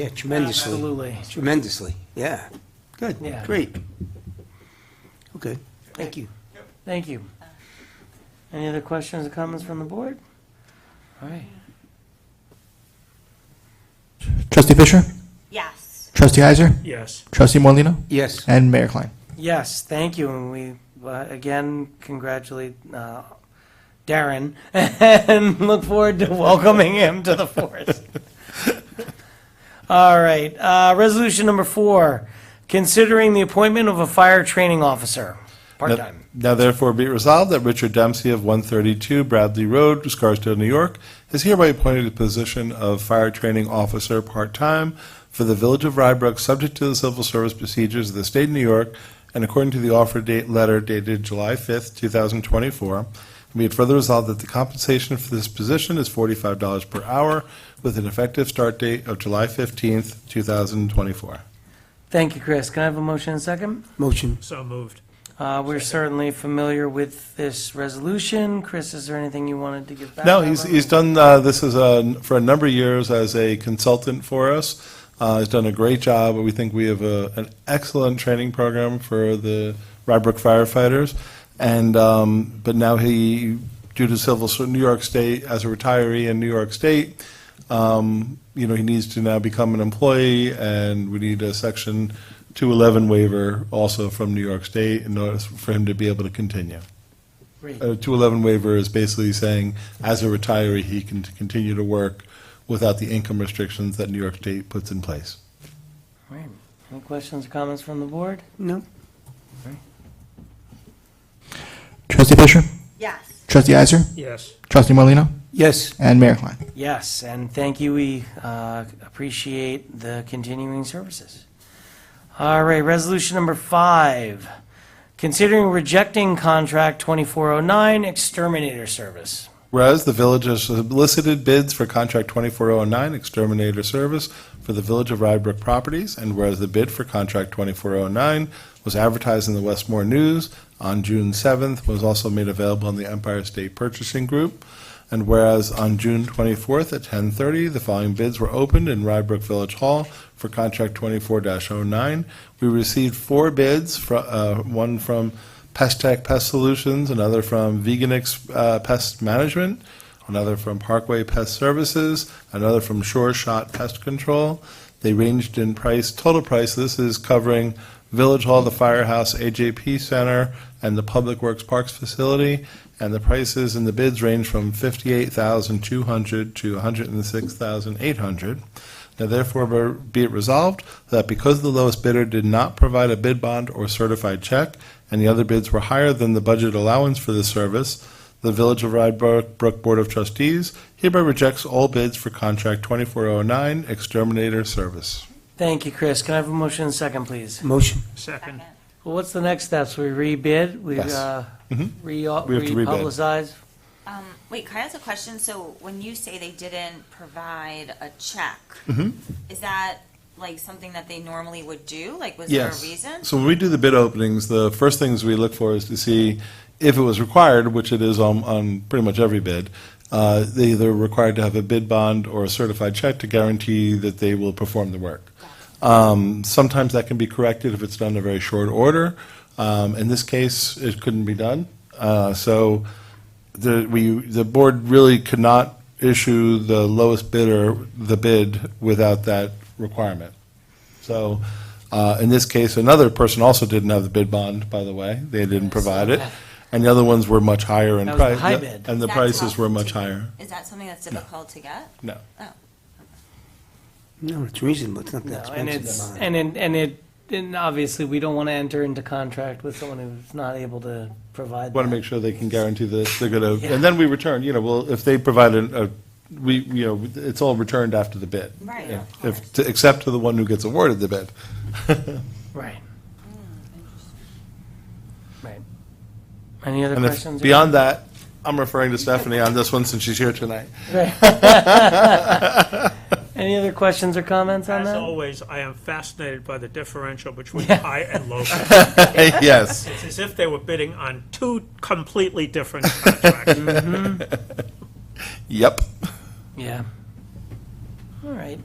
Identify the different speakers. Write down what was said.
Speaker 1: Yeah, tremendously.
Speaker 2: Absolutely.
Speaker 1: Tremendously, yeah. Good,
Speaker 2: Yeah.
Speaker 1: great. Okay, thank you.
Speaker 2: Thank you. Any other questions or comments from the board? All right.
Speaker 3: Trustee Fisher,
Speaker 4: Yes.
Speaker 3: Trustee Heiser,
Speaker 5: Yes.
Speaker 3: Trustee Morlino,
Speaker 1: Yes,
Speaker 3: and Mayor Klein.
Speaker 2: Yes, thank you, and we, uh, again, congratulate uh, Darren, and look forward to welcoming him to the force. All right, uh, resolution number four, considering the appointment of a fire training officer, part-time.
Speaker 6: Now therefore be it resolved that Richard Dempsey of 132 Bradley Road, Scarsdale, New York, is hereby appointed to the position of Fire Training Officer, part-time, for the Village of Rybrook, subject to the civil service procedures of the state of New York, and according to the offer date letter dated July 5th, 2024. And Be it further resolved that the compensation for this position is $45 per hour, with an effective start date of July 15th, 2024.
Speaker 2: Thank you, Chris. Can I have a motion and second?
Speaker 1: motion.
Speaker 5: So moved.
Speaker 2: Uh, We're certainly familiar with this resolution. Chris, is there anything you wanted to give back?
Speaker 6: No, he's,
Speaker 2: on?
Speaker 6: he's done, uh, this is a, for a number of years as a consultant for us. Uh, he's done a great job. We think we have a, an excellent training program for the Rybrook firefighters. And, um, but now he, due to civil, so New York State, as a retiree in New York State, um, you know, he needs to now become an employee and we need a section 211 waiver also from New York State in order for him to be able to continue.
Speaker 2: Great.
Speaker 6: A 211 uh, waiver is basically saying, as a retiree, he can t- continue to work without the income restrictions that New York State puts in place.
Speaker 2: All right. Any questions or comments from the board?
Speaker 1: No,
Speaker 3: Trustee Fisher,
Speaker 4: Yes.
Speaker 3: Trustee Heiser,
Speaker 5: Yes.
Speaker 3: Trustee Morlino,
Speaker 1: yes,
Speaker 3: and Mayor Klein.
Speaker 2: Yes, and thank you. We uh, appreciate the continuing services. All right, resolution number five, considering rejecting contract 2409 exterminator service.
Speaker 6: Whereas the village has solicited bids for contract 2409 exterminator service for the Village of Rybrook properties, and whereas the bid for contract 2409 was advertised in the Westmore News on June 7th, was also made available on the Empire State Purchasing Group, and whereas on June 24th at 10:30, the following bids were opened in Rybrook Village Hall for contract 24-09. We received four bids, fro- uh, one from Pest Tech Pest Solutions, another from Veganix uh, Pest Management, another from Parkway Pest Services, another from Sure Shot Pest Control. They ranged in price, total price, this is covering Village Hall, the Firehouse, AJP Center, and the Public Works Parks Facility. And the prices and the bids range from fifty-eight thousand two hundred to one hundred and six thousand eight hundred. Now therefore be it resolved that because the lowest bidder did not provide a bid bond or certified check, and the other bids were higher than the budget allowance for this service, the Village of Rybrook Brook Board of Trustees hereby rejects all bids for contract 2409 exterminator service.
Speaker 2: Thank you, Chris. Can I have a motion and second, please?
Speaker 1: motion.
Speaker 5: Second.
Speaker 2: Well, what's the next steps? We rebid? We
Speaker 6: Yes. Mm-hmm.
Speaker 2: uh, re-
Speaker 6: We have to rebid.
Speaker 2: republicize?
Speaker 4: Um, wait, can I ask a question? So when you say they didn't provide a check,
Speaker 6: Mm-hmm.
Speaker 4: is that like something that they normally would do? Like, was
Speaker 6: Yes.
Speaker 4: there a reason?
Speaker 6: So when we do the bid openings, the first things we look for is to see if it was required, which it is on, on pretty much every bid. Uh, they either required to have a bid bond or a certified check to guarantee that they will perform the work. Um, sometimes that can be corrected if it's done in very short order. Um, in this case, it couldn't be done. Uh, so the, we, the board really could not issue the lowest bidder the bid without that requirement. So, uh, in this case, another person also didn't have the bid bond, by the way. They didn't provide it. And the other ones were much higher in
Speaker 2: That was the
Speaker 6: price.
Speaker 2: high bid.
Speaker 6: And the
Speaker 4: That's
Speaker 6: prices
Speaker 4: tough
Speaker 6: were
Speaker 4: to
Speaker 6: much
Speaker 4: get.
Speaker 6: higher.
Speaker 4: Is that something that's difficult to get?
Speaker 6: No.
Speaker 4: Oh,
Speaker 1: No, it's reasonable, it's not that
Speaker 2: No, and it's,
Speaker 1: expensive.
Speaker 2: and it, and it, and obviously, we don't want to enter into contract with someone who's not able to provide
Speaker 6: Want to
Speaker 2: that.
Speaker 6: make sure they can guarantee that they're going to,
Speaker 2: Yeah.
Speaker 6: and then we return, you know, well, if they provide an- a, we, you know, it's all returned after the bid.
Speaker 4: Right,
Speaker 6: Yeah.
Speaker 4: of course.
Speaker 6: If, to- except to the one who gets awarded the bid.
Speaker 2: Right. Right. Any other
Speaker 6: And if-
Speaker 2: questions? or-
Speaker 6: beyond that, I'm referring to Stephanie on this one since she's here tonight.
Speaker 2: Any other questions or comments on
Speaker 5: As
Speaker 2: that?
Speaker 5: always, I am fascinated by the differential between
Speaker 2: Yeah.
Speaker 5: high and low.
Speaker 6: Yes.
Speaker 5: It's as if they were bidding on two completely different contracts.
Speaker 6: Yep.
Speaker 2: Yeah. All right.